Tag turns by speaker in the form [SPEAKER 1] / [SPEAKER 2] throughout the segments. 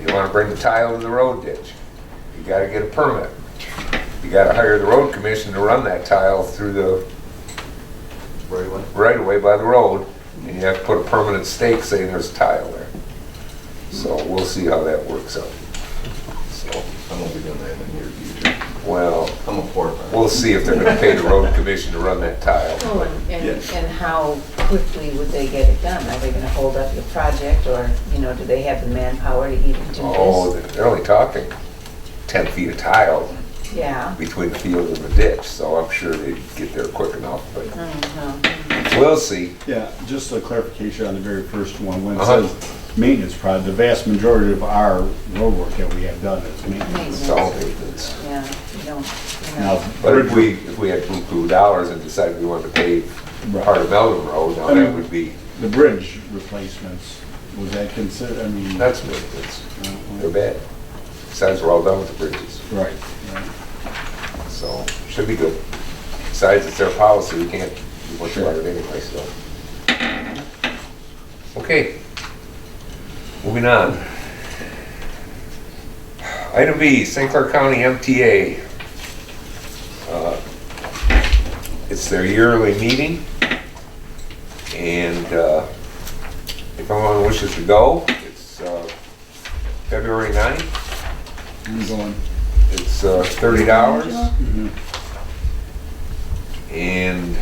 [SPEAKER 1] You wanna bring the tile to the road ditch, you gotta get a permit. You gotta hire the road commission to run that tile through the
[SPEAKER 2] right away.
[SPEAKER 1] right away by the road, and you have to put a permanent stake saying there's tile there. So we'll see how that works out. So,
[SPEAKER 2] I'm gonna be doing that in the near future.
[SPEAKER 1] well,
[SPEAKER 2] I'm a poor man.
[SPEAKER 1] we'll see if they're gonna pay the road commission to run that tile.
[SPEAKER 3] Well, and, and
[SPEAKER 2] Yes.
[SPEAKER 3] and how quickly would they get it done? Are they gonna hold up the project, or, you know, do they have the manpower to even do
[SPEAKER 1] Oh,
[SPEAKER 3] this?
[SPEAKER 1] they're only talking ten feet of tile
[SPEAKER 3] Yeah.
[SPEAKER 1] between the field and the ditch, so I'm sure they'd get there quick enough, but
[SPEAKER 3] Mhm.
[SPEAKER 1] we'll see.
[SPEAKER 4] Yeah, just a clarification on the very first one, when it
[SPEAKER 1] Uh-huh.
[SPEAKER 4] says maintenance project, the vast majority of our roadwork that we have done is maintenance.
[SPEAKER 1] So,
[SPEAKER 3] Mm-hmm. Yeah, you don't, you
[SPEAKER 4] Now,
[SPEAKER 3] know,
[SPEAKER 1] but if we, if we had blue dollars and decided we wanted to pave
[SPEAKER 4] Right.
[SPEAKER 1] part of Meldon Road, now
[SPEAKER 4] I
[SPEAKER 1] that
[SPEAKER 4] mean-
[SPEAKER 1] would be,
[SPEAKER 4] The bridge replacements, was that considered, I mean?
[SPEAKER 1] that's maintenance. They're
[SPEAKER 4] uh,
[SPEAKER 1] bad. Besides, we're all done with the bridges,
[SPEAKER 4] Right, right.
[SPEAKER 1] so should be good. Besides, it's their policy, we can't do much about it anyway, so. Okay. Moving on. Item B, St. Clair County MTA. Uh, It's their yearly meeting. And uh, if anyone wishes to go, it's uh, February 9th.
[SPEAKER 4] I'm going,
[SPEAKER 1] It's uh, thirty dollars.
[SPEAKER 4] Mhm.
[SPEAKER 1] And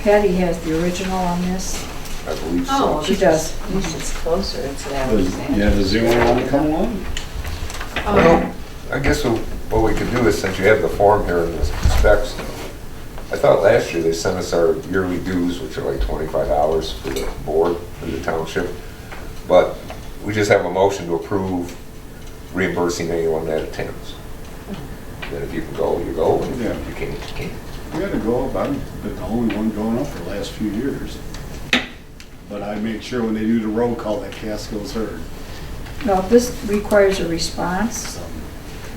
[SPEAKER 5] Patty has the original on this.
[SPEAKER 1] I believe
[SPEAKER 3] oh,
[SPEAKER 1] so.
[SPEAKER 5] She
[SPEAKER 3] this
[SPEAKER 5] does.
[SPEAKER 3] is, this is closer to that.
[SPEAKER 4] Does- yeah, does anyone want to come along?
[SPEAKER 1] Well, I guess wh- what we could do is, since you have the form here in the specs, I thought last year they sent us our yearly dues, which are like twenty-five dollars for the board, for the township. But we just have a motion to approve reimbursing anyone that attends. Then if you can go, you go, and
[SPEAKER 4] Yeah.
[SPEAKER 1] if you can't, you can't.
[SPEAKER 4] We gotta go up, I've been the only one going up for the last few years. But I make sure when they do the roll call that Casco's heard.
[SPEAKER 5] No, this requires a response.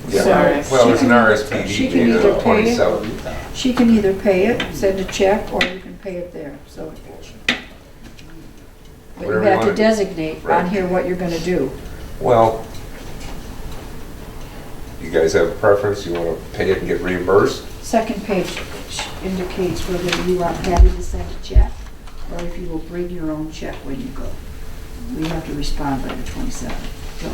[SPEAKER 1] Yeah.
[SPEAKER 5] Sorry.
[SPEAKER 1] Well, there's an
[SPEAKER 5] She
[SPEAKER 1] RSPD
[SPEAKER 5] can either pay
[SPEAKER 1] data,
[SPEAKER 5] it-
[SPEAKER 1] twenty-seven.
[SPEAKER 5] She can either pay it, send a check, or you can pay it there, so. But you
[SPEAKER 1] Whatever you
[SPEAKER 5] have to
[SPEAKER 1] wanna-
[SPEAKER 5] designate
[SPEAKER 1] Right.
[SPEAKER 5] on here what you're gonna do.
[SPEAKER 1] Well, you guys have a preference, you want to pay it and get reimbursed?
[SPEAKER 5] Second page indicates whether you want Patty to send a check, or if you will bring your own check when you go. We have to respond by the 27th, so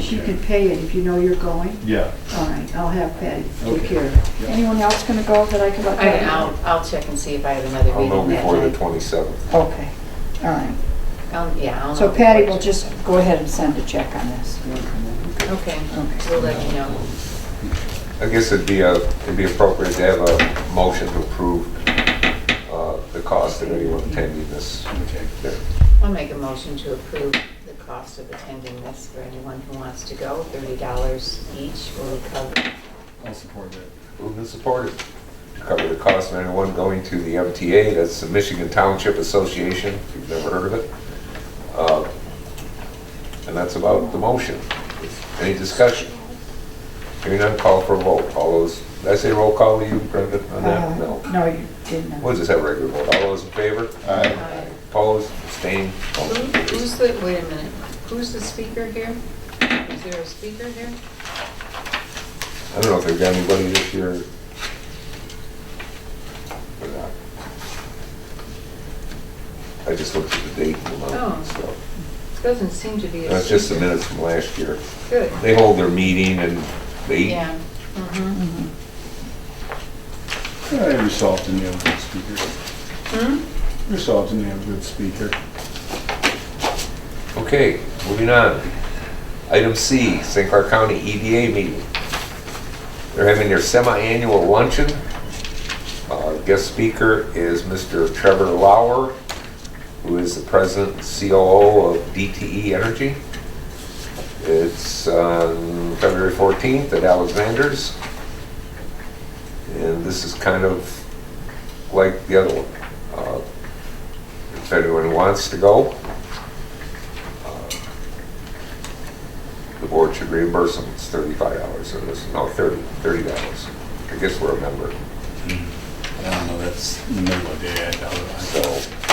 [SPEAKER 5] she Oh.
[SPEAKER 4] Okay.
[SPEAKER 5] can pay it if you know you're going.
[SPEAKER 4] Yeah,
[SPEAKER 5] All right, I'll have Patty take
[SPEAKER 4] Okay.
[SPEAKER 5] care of it. Anyone else gonna go that I can let
[SPEAKER 3] I,
[SPEAKER 5] Patty know?
[SPEAKER 3] I'll, I'll check and see if I have another
[SPEAKER 1] I'll know
[SPEAKER 3] meeting that
[SPEAKER 1] before the
[SPEAKER 3] night.
[SPEAKER 1] 27th.
[SPEAKER 5] Okay, all right.
[SPEAKER 3] I'll- Oh, Yeah, I'll know.
[SPEAKER 5] So Patty
[SPEAKER 3] before-
[SPEAKER 5] will just go ahead and send a check on this.
[SPEAKER 3] Okay,
[SPEAKER 5] Okay.
[SPEAKER 3] we'll let you know.
[SPEAKER 1] I guess it'd be, a- it'd be appropriate to have a motion to approve uh, the cost of anyone attending this.
[SPEAKER 4] okay.
[SPEAKER 3] I'll make a motion to approve the cost of attending this for anyone who wants to go. Thirty dollars each will cover.
[SPEAKER 4] I'll support that.
[SPEAKER 1] Moved and supported. To cover the cost of anyone going to the MTA, that's the Michigan Township Association, if you've never heard of it. Uh, And that's about the motion. Any discussion? Hearing none, call for a vote. All those, did I say roll call to you, Brendan, on that? No.
[SPEAKER 5] Uh, No, you didn't.
[SPEAKER 1] We'll just have a regular vote. All those in favor?
[SPEAKER 3] Aye.
[SPEAKER 1] Opposed, abstained, motion
[SPEAKER 3] Who-
[SPEAKER 1] carries.
[SPEAKER 3] Who's the, wait a minute, who's the speaker here? Is there a speaker here?
[SPEAKER 1] I don't know if they've got anybody this year. or not. I just looked at the date and the month,
[SPEAKER 3] Oh.
[SPEAKER 1] so.
[SPEAKER 3] Doesn't seem to be a speaker.
[SPEAKER 1] That's Uh, just the minutes from last year.
[SPEAKER 3] Good,
[SPEAKER 1] They hold their meeting and they eat.
[SPEAKER 3] yeah. Mhm.
[SPEAKER 4] Yeah, Every so often you have a good speaker.
[SPEAKER 3] Hmm?
[SPEAKER 4] Every so often you have a good speaker.
[SPEAKER 1] Okay, moving on. Item C, St. Clair County EDA meeting. They're having their semi-annual luncheon. Uh, Guest speaker is Mr. Trevor Lauer, who is the president and COO of DTE Energy. It's on February 14th at Alexander's. And this is kind of like the other one. Uh, If anyone wants to go, the board should reimburse them, it's thirty-five dollars, or this, no, thirty, thirty dollars. I guess we're a member,
[SPEAKER 4] I don't know, that's in the middle of the day, I doubt it.
[SPEAKER 1] so